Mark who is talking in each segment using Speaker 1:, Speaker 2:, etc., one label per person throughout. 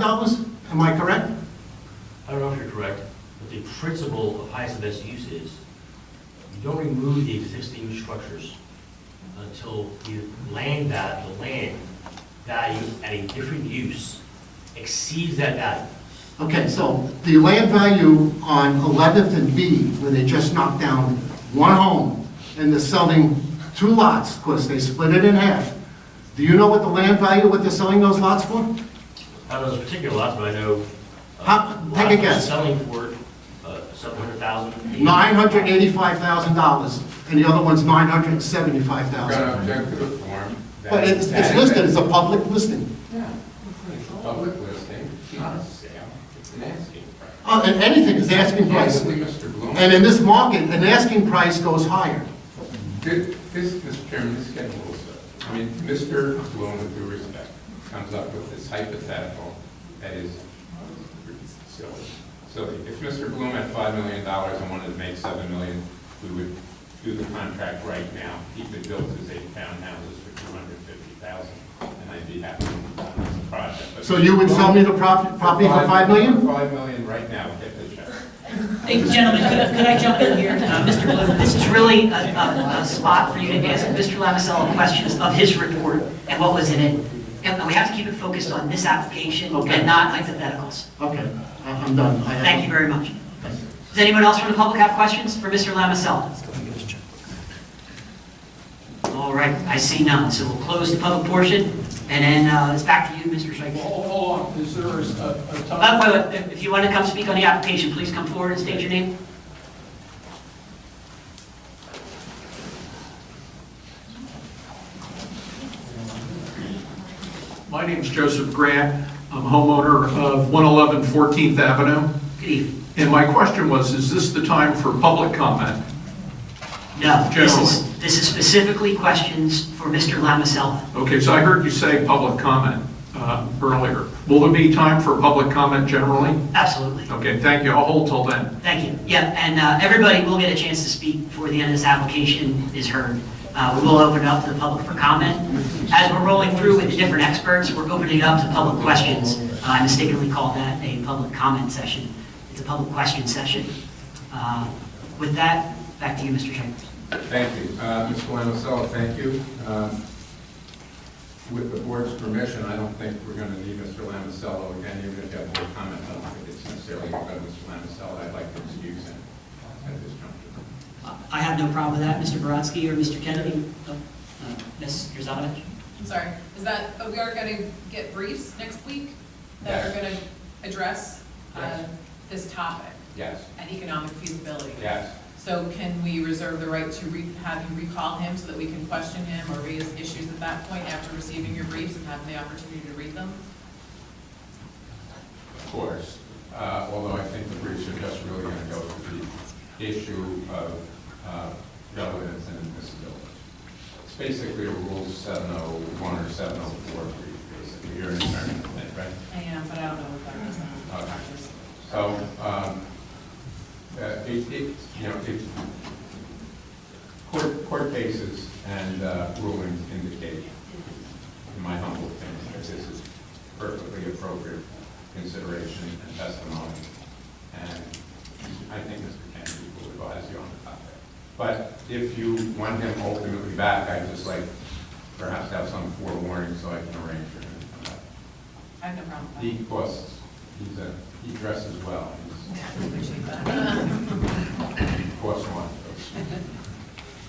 Speaker 1: dollars, am I correct?
Speaker 2: I don't know if you're correct, but the principle of highest and best use is, you don't remove the existing structures until you land that, the land value at a different use exceeds that value.
Speaker 1: Okay, so the land value on 11th and B, where they just knocked down one home, and they're selling two lots, because they split it in half, do you know what the land value, what they're selling those lots for?
Speaker 2: I don't know those particular lots, but I know. uh,
Speaker 1: How- take a
Speaker 2: lots are
Speaker 1: guess.
Speaker 2: Selling for, uh, seven hundred thousand.
Speaker 1: $985,000, and the other one's
Speaker 3: I'm gonna
Speaker 1: $975,000.
Speaker 3: object to the form. that-
Speaker 1: But it's it's
Speaker 3: that-
Speaker 1: listed as a public listing.
Speaker 3: Yeah, it's a public listing, it's not a sale, it's an asking price.
Speaker 1: Uh, And anything is asking price.
Speaker 3: Candidly, Mr. Bloom,
Speaker 1: And in this market, an asking price goes higher.
Speaker 3: thi- this, Mr. Chairman, this gets a little, silly. I mean, Mr. Bloom, with due respect, comes up with this hypothetical that is silly. Silly. If Mr. Bloom had five million dollars and wanted to make seven million, we would do the contract right now. He could build his eight townhouses for two hundred fifty thousand, and I'd be happy with this project. But
Speaker 1: So you would sell me the prop- property for 5 million?
Speaker 3: For Five million right now, get the check.
Speaker 4: Hey, gentlemen, could I- could I jump in here? Uh, Mr. Bloom, this is really a- a a spot for you to ask Mr. Lamisella questions of his report and what was in it. And we have to keep it focused on this application
Speaker 1: Okay.
Speaker 4: and not hypotheticals.
Speaker 1: Okay, I- I'm done. I have-
Speaker 4: Thank you very much. Does anyone else from the public have questions for Mr. Lamisella? All right, I see none, so we'll close the public portion, and then uh, it's back to you, Mr.
Speaker 5: Well,
Speaker 4: Schweikes.
Speaker 5: Hold hold on, is there a, a
Speaker 4: Uh,
Speaker 5: time?
Speaker 4: wait, wait, If you want to come speak on the application, please come forward and state your name.
Speaker 5: My name's Joseph Grant, I'm homeowner of 111 14th Avenue,
Speaker 4: Good evening.
Speaker 5: and my question was, is this the time for public comment?
Speaker 4: No, this is, this is specifically questions for Mr. Lamisella.
Speaker 5: Okay, so I heard you say public comment uh, earlier. Will there be time for public comment generally?
Speaker 4: Absolutely.
Speaker 5: Okay, thank you, I'll hold till then.
Speaker 4: Thank you. Yeah, and uh, everybody will get a chance to speak before the end of this application is heard. Uh, We will open it up to the public for comment. As we're rolling through with the different experts, we're opening it up to public questions. Uh, I mistakenly called that a public comment session. It's a public question session. Uh, With that, back to you, Mr. Chambers.
Speaker 3: Thank you. Uh, Mr. Lamisella, thank you. Um, With the board's permission, I don't think we're going to need Mr. Lamisella again, even if you have more comment. I don't think it's necessarily about Mr. Lamisella. I'd like to excuse him at this juncture.
Speaker 4: I have no problem with that, Mr. Baransky or Mr. Kennedy. Oh, uh, Ms. Yuzovich?
Speaker 6: I'm sorry, is that, oh, we are going to get briefs next week that are going to address uh,
Speaker 3: Yes.
Speaker 6: this topic
Speaker 3: Yes,
Speaker 6: and economic feasibility?
Speaker 3: yes.
Speaker 6: So can we reserve the right to re- have you recall him so that we can question him or raise issues at that point after receiving your briefs and having the opportunity to read them?
Speaker 3: Of course, Uh, although I think the briefs are just really going to go to the issue of uh, relevance and admissibility. It's basically a Rule 701 or 704 brief, basically, you're an attorney, right?
Speaker 6: I am, but I don't know if that is.
Speaker 3: Okay. So, um, uh, it, it, you know, it, court, court cases and uh, rulings indicate, in my humble opinion, that this is perfectly appropriate consideration and testimony. And I think Mr. Kennedy will advise you on the topic. But if you want him ultimately back, I'd just like perhaps have some forewarning so I can arrange for him to come back.
Speaker 6: I have no problem
Speaker 3: He
Speaker 6: with
Speaker 3: costs, he's a, he dresses well,
Speaker 6: that. I appreciate that.
Speaker 3: he's cost one.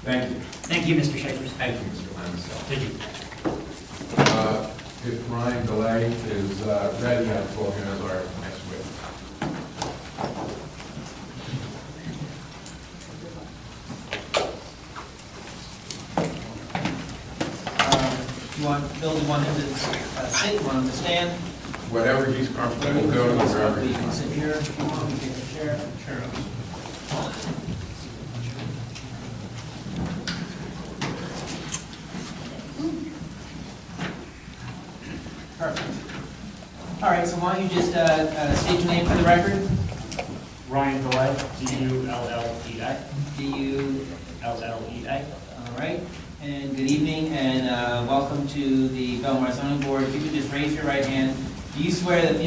Speaker 3: Thank you,
Speaker 4: Thank you, Mr. Chambers.
Speaker 3: thank you, Mr. Lamisella.
Speaker 2: Thank you.
Speaker 3: Uh, If Ryan Delay is uh, ready, I'll call him as our next witness.
Speaker 7: Uh, You want, Bill, you want him to uh, sit, you want him to stand?
Speaker 3: Whatever he's comfortable with, go to wherever
Speaker 7: You
Speaker 3: he's
Speaker 7: can
Speaker 3: comfortable.
Speaker 7: sit here, if you want, you can take a chair. Chair. Perfect. All right, so why don't you just uh, uh, state your name for the record?
Speaker 2: Ryan Delay, D U L L E I,
Speaker 7: Do you,
Speaker 2: L L E I.
Speaker 7: all right, and good evening, and uh, welcome to the Belmar zoning board. If you could just raise your right hand, do you swear that the